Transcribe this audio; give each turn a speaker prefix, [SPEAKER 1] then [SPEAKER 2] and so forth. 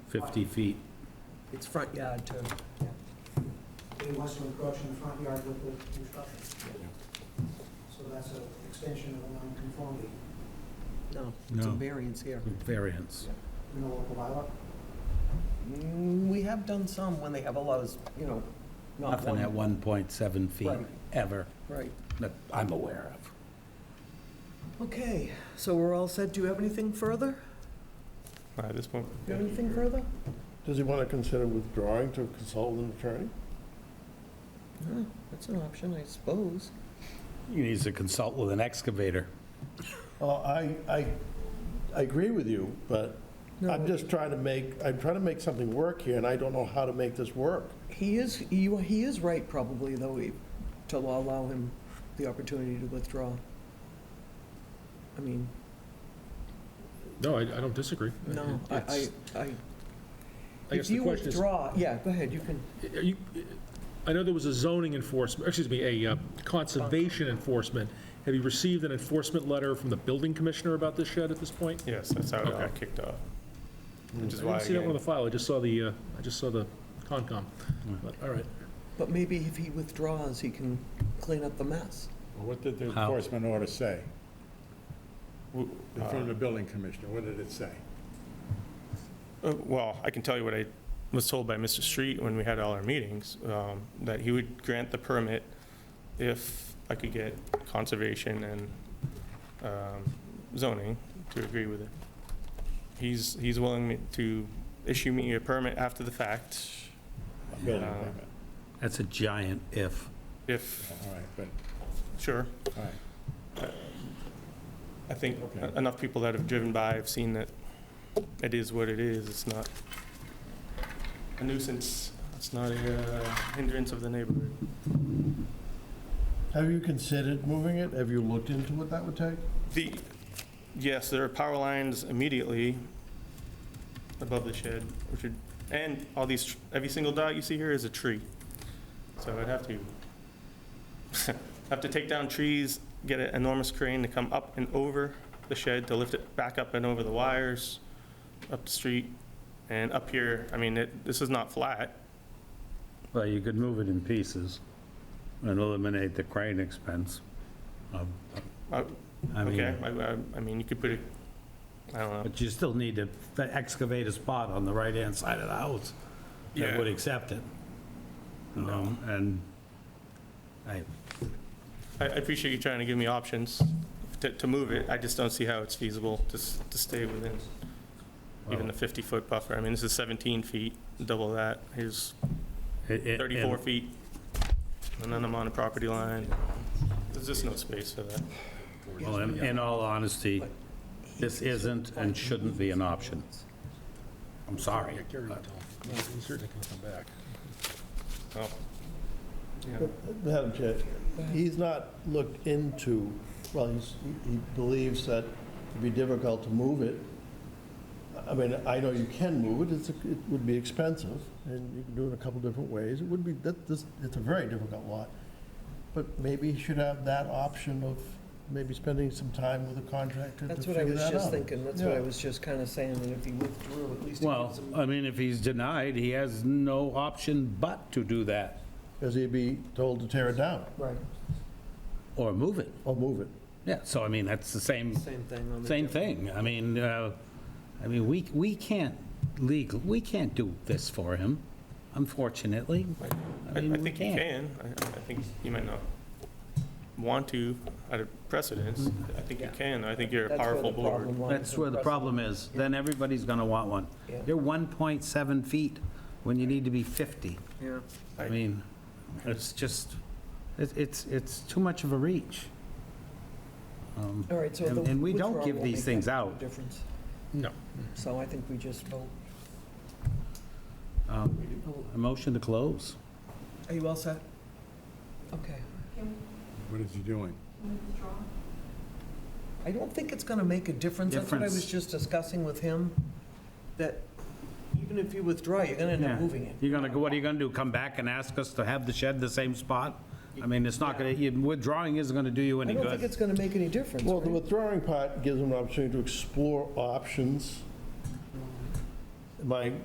[SPEAKER 1] 50 feet.
[SPEAKER 2] It's front yard too.
[SPEAKER 3] It wants to encroach in the front yard with the construction. So that's an extension of a non-conformity
[SPEAKER 2] No, it's a
[SPEAKER 1] No.
[SPEAKER 2] variance here.
[SPEAKER 1] Variance.
[SPEAKER 3] in the local bylaw.
[SPEAKER 2] Mm, We have done some when they have a lot of, you know, not
[SPEAKER 1] Nothing at
[SPEAKER 2] one.
[SPEAKER 1] 1.7 feet,
[SPEAKER 2] Right.
[SPEAKER 1] ever,
[SPEAKER 2] Right.
[SPEAKER 1] that I'm aware of.
[SPEAKER 2] Okay, so we're all set. Do you have anything further?
[SPEAKER 4] Not at this point.
[SPEAKER 2] Do you have anything further?
[SPEAKER 5] Does he want to consider withdrawing to consult with an attorney?
[SPEAKER 2] No, that's an option, I suppose.
[SPEAKER 1] He needs to consult with an excavator.
[SPEAKER 5] Well, Oh, I, I, I agree with you, but
[SPEAKER 2] No.
[SPEAKER 5] I'm just trying to make, I'm trying to make something work here, and I don't know how to make this work.
[SPEAKER 2] He is, you, he is right probably, though, he- to allow him the opportunity to withdraw. I mean,
[SPEAKER 6] No, I, I don't disagree.
[SPEAKER 2] no, I, I,
[SPEAKER 6] It's-
[SPEAKER 2] I.
[SPEAKER 6] I guess
[SPEAKER 2] If
[SPEAKER 6] the
[SPEAKER 2] you
[SPEAKER 6] question is,
[SPEAKER 2] withdraw, yeah, go ahead, you can,
[SPEAKER 6] are you- I know there was a zoning enforcement, excuse me, a uh, conservation enforcement. Have you received an enforcement letter from the building commissioner about this shed at this point?
[SPEAKER 4] Yes, that's how it got
[SPEAKER 6] Okay. Mm.
[SPEAKER 4] kicked off. Which
[SPEAKER 6] I
[SPEAKER 4] is why,
[SPEAKER 6] didn't see that one on the
[SPEAKER 4] again,
[SPEAKER 6] file, I just saw the, uh, I just saw the Concom.
[SPEAKER 4] Hmm.
[SPEAKER 6] But, all right,
[SPEAKER 2] but maybe if he withdraws, he can clean up the mess.
[SPEAKER 7] What did the
[SPEAKER 1] How?
[SPEAKER 7] enforcement order say?
[SPEAKER 4] w-
[SPEAKER 5] Uh,
[SPEAKER 7] In front of the building commissioner, what did it say?
[SPEAKER 4] uh, well, I can tell you what I was told by Mr. Street when we had all our meetings, um, that he would grant the permit if I could get conservation and um, zoning to agree with it. He's, he's willing me- to issue me a permit after the fact
[SPEAKER 7] A Building
[SPEAKER 4] Uh,
[SPEAKER 7] permit,
[SPEAKER 1] That's a giant if.
[SPEAKER 4] if,
[SPEAKER 7] all right, but,
[SPEAKER 4] sure.
[SPEAKER 7] all right.
[SPEAKER 4] I think
[SPEAKER 7] Okay.
[SPEAKER 4] enough people that have driven by have seen that it is what it is. It's not a nuisance. It's not a uh, hindrance of the neighborhood.
[SPEAKER 5] Have you considered moving it? Have you looked into what that would take?
[SPEAKER 4] The, yes, there are power lines immediately above the shed, which would, and all these, tr- every single dot you see here is a tree. So I'd have to, have to take down trees, get an enormous crane to come up and over the shed to lift it back up and over the wires, up the street, and up here. I mean, it, this is not flat.
[SPEAKER 1] Well, you could move it in pieces and eliminate the crane expense. Um,
[SPEAKER 4] Uh,
[SPEAKER 1] I
[SPEAKER 4] Okay,
[SPEAKER 1] mean,
[SPEAKER 4] I, I- I mean, you could put it, I don't know.
[SPEAKER 1] but you still need to excavate a spot on the right-hand side of the house that
[SPEAKER 4] Yeah.
[SPEAKER 1] would accept it. Um, And I,
[SPEAKER 4] I I appreciate you trying to give me options to, to move it. I just don't see how it's feasible to, s- to stay within even the 50-foot buffer. I mean, this is 17 feet, double that. Here's
[SPEAKER 1] it- it-
[SPEAKER 4] 34 feet, and then I'm on a property line. There's just no space for that.
[SPEAKER 1] Well, in in all honesty, this isn't and shouldn't be an option. I'm sorry.
[SPEAKER 6] he's certainly going to come back.
[SPEAKER 4] Oh, yeah.
[SPEAKER 5] Madam Chair, he's not looked into, well, he's, he believes that it'd be difficult to move it. I mean, I know you can move it, it's, it would be expensive, and you can do it a couple different ways. It would be, that, this, it's a very difficult lot. But maybe he should have that option of maybe spending some time with a contractor to
[SPEAKER 2] That's
[SPEAKER 5] figure
[SPEAKER 2] what
[SPEAKER 5] that
[SPEAKER 2] I
[SPEAKER 5] out.
[SPEAKER 2] was just thinking, that's what I
[SPEAKER 5] Yeah.
[SPEAKER 2] was just kind of saying, that if he withdrew, at least he
[SPEAKER 1] Well,
[SPEAKER 2] gives him.
[SPEAKER 1] I mean, if he's denied, he has no option but to do that
[SPEAKER 5] Because he'd be told to tear it
[SPEAKER 1] uh,
[SPEAKER 5] down
[SPEAKER 2] Right,
[SPEAKER 1] or move it.
[SPEAKER 5] or move it.
[SPEAKER 1] Yeah, so I mean, that's the same,
[SPEAKER 2] same thing on the.
[SPEAKER 1] same thing. I mean, uh, I mean, we, we can't legal, we can't do this for him, unfortunately.
[SPEAKER 4] I
[SPEAKER 1] mean,
[SPEAKER 4] I
[SPEAKER 1] we
[SPEAKER 4] think you can. I I think you might not want to out of precedence. I think you
[SPEAKER 2] Yeah.
[SPEAKER 4] can. I think you're a
[SPEAKER 2] That's where
[SPEAKER 4] powerful
[SPEAKER 2] the problem
[SPEAKER 4] board.
[SPEAKER 2] lies.
[SPEAKER 1] That's where the problem is. Then everybody's gonna want one.
[SPEAKER 2] Yeah.
[SPEAKER 1] You're 1.7 feet when you need to be 50.
[SPEAKER 2] Yeah.
[SPEAKER 1] I
[SPEAKER 4] I-
[SPEAKER 1] mean, it's just, it- it's, it's too much of a reach. Um,
[SPEAKER 2] All right, so
[SPEAKER 1] And-
[SPEAKER 2] the
[SPEAKER 1] and we don't
[SPEAKER 2] withdrawal
[SPEAKER 1] give
[SPEAKER 2] won't
[SPEAKER 1] these
[SPEAKER 2] make
[SPEAKER 1] things
[SPEAKER 2] that much
[SPEAKER 1] out.
[SPEAKER 2] Difference.
[SPEAKER 6] No.
[SPEAKER 2] So I think we just vote.
[SPEAKER 1] um, A motion to close.
[SPEAKER 2] Are you all set? Okay.
[SPEAKER 7] What is he doing?
[SPEAKER 2] I don't think it's going to make a difference. That's what I was
[SPEAKER 1] Difference.
[SPEAKER 2] just discussing with him, that even if you withdraw, you're going to end
[SPEAKER 1] Yeah.
[SPEAKER 2] up moving it.
[SPEAKER 1] You're gonna, go. what are you gonna do, come back and ask us to have the shed the same spot? I mean, it's not gonna, you- withdrawing isn't gonna do you
[SPEAKER 2] I
[SPEAKER 1] any
[SPEAKER 2] don't think
[SPEAKER 1] good.
[SPEAKER 2] it's going to make any difference,
[SPEAKER 5] Well, the
[SPEAKER 2] right?
[SPEAKER 5] withdrawing part gives them an opportunity to explore options. My